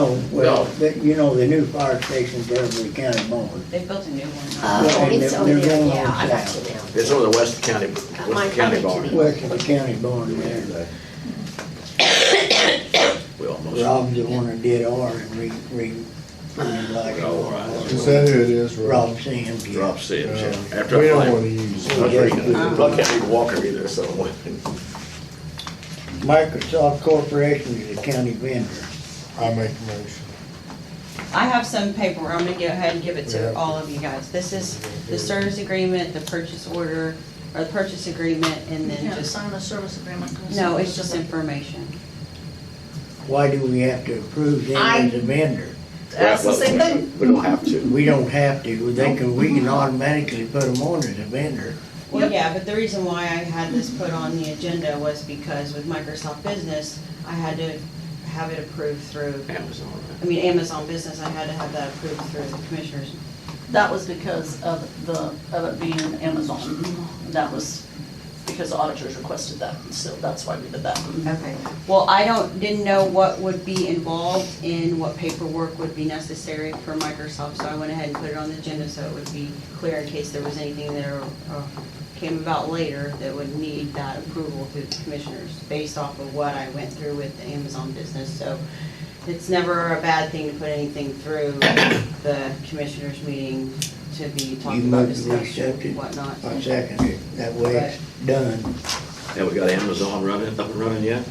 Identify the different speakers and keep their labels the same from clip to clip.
Speaker 1: No, Oh, well,
Speaker 2: No.
Speaker 1: the- you know, the new fire station's Beverly County Bowen.
Speaker 3: They built a new one.
Speaker 1: Yeah,
Speaker 4: Oh,
Speaker 1: and
Speaker 4: it's
Speaker 1: they're-
Speaker 4: over
Speaker 1: they're
Speaker 4: there,
Speaker 1: going
Speaker 4: yeah,
Speaker 1: on
Speaker 4: I got
Speaker 1: south.
Speaker 4: you now.
Speaker 2: It's over the West County,
Speaker 4: Mine-
Speaker 2: West County
Speaker 4: mine
Speaker 2: barn.
Speaker 4: too.
Speaker 1: West of the county barn there.
Speaker 2: We almost,
Speaker 1: Rob's the one that did ours and re, re, re- like.
Speaker 2: Oh, all right.
Speaker 5: Is that who it is, Rob?
Speaker 1: Rob Sands. yeah.
Speaker 2: drop
Speaker 5: Uh,
Speaker 2: said, yeah, after
Speaker 5: We
Speaker 2: I
Speaker 5: don't wanna
Speaker 2: played.
Speaker 5: use.
Speaker 2: I was reading it.
Speaker 1: Uh-huh.
Speaker 2: I can't read Walker either, so.
Speaker 1: Microsoft Corporation is a county vendor.
Speaker 5: I make the motion.
Speaker 3: I have some paperwork, I'm gonna go ahead and give it
Speaker 5: Yeah.
Speaker 3: to all of you guys. This is the service agreement, the purchase order, or the purchase agreement, and then
Speaker 6: Yeah,
Speaker 3: just,
Speaker 6: sign the service agreement.
Speaker 3: no, it's just information.
Speaker 1: Why do we have to approve them as a vendor?
Speaker 6: That's the same thing.
Speaker 2: We don't have to.
Speaker 1: We don't have to, they can, we can automatically put them on as a vendor.
Speaker 3: Well,
Speaker 6: Yep.
Speaker 3: yeah, but the reason why I had this put on the agenda was because with Microsoft Business, I had to have it approved through,
Speaker 2: Amazon,
Speaker 3: I mean, Amazon Business, I had to have that approved through the commissioners.
Speaker 6: That was because of the, of it being Amazon. That was because auditors requested that, so that's why we did that.
Speaker 3: Okay, well, I don't, didn't know what would be involved in what paperwork would be necessary for Microsoft, so I went ahead and put it on the agenda so it would be clear in case there was anything there uh, came about later that would need that approval through the commissioners, based off of what I went through with the Amazon business, so it's never a bad thing to put anything through the commissioners meeting to be
Speaker 1: You
Speaker 3: talking about
Speaker 1: moved to accept
Speaker 3: discussion
Speaker 1: it?
Speaker 3: and whatnot.
Speaker 1: I second it, that way it's done,
Speaker 2: and we got Amazon running, up and running yet?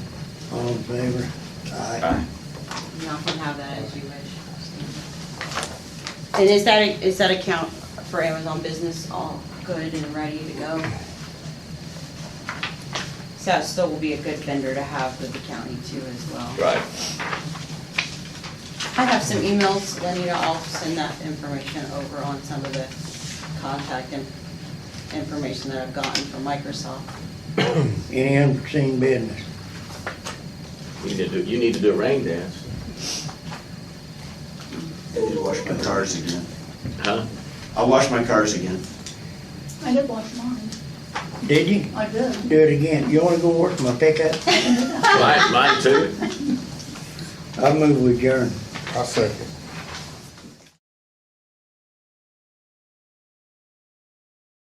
Speaker 1: all in favor? Aye.
Speaker 2: Aye.
Speaker 3: Y'all can have that as you wish. And is that, is that account for Amazon Business all good and ready to go? So that still will be a good vendor to have with the county too as well.
Speaker 2: Right.
Speaker 3: I have some emails, Lenita, I'll send that information over on some of the contact and information that I've gotten from Microsoft.
Speaker 1: Any unforeseen business?
Speaker 2: You need to do, you need to do a rain dance,
Speaker 7: I did wash my cars again.
Speaker 2: huh?
Speaker 7: I washed my cars again.
Speaker 6: I did watch mine.
Speaker 1: Did you?
Speaker 6: I did.
Speaker 1: Do it again, you wanna go work my pickup?
Speaker 2: Mine, mine too.
Speaker 1: I move with adjourn.
Speaker 5: I second.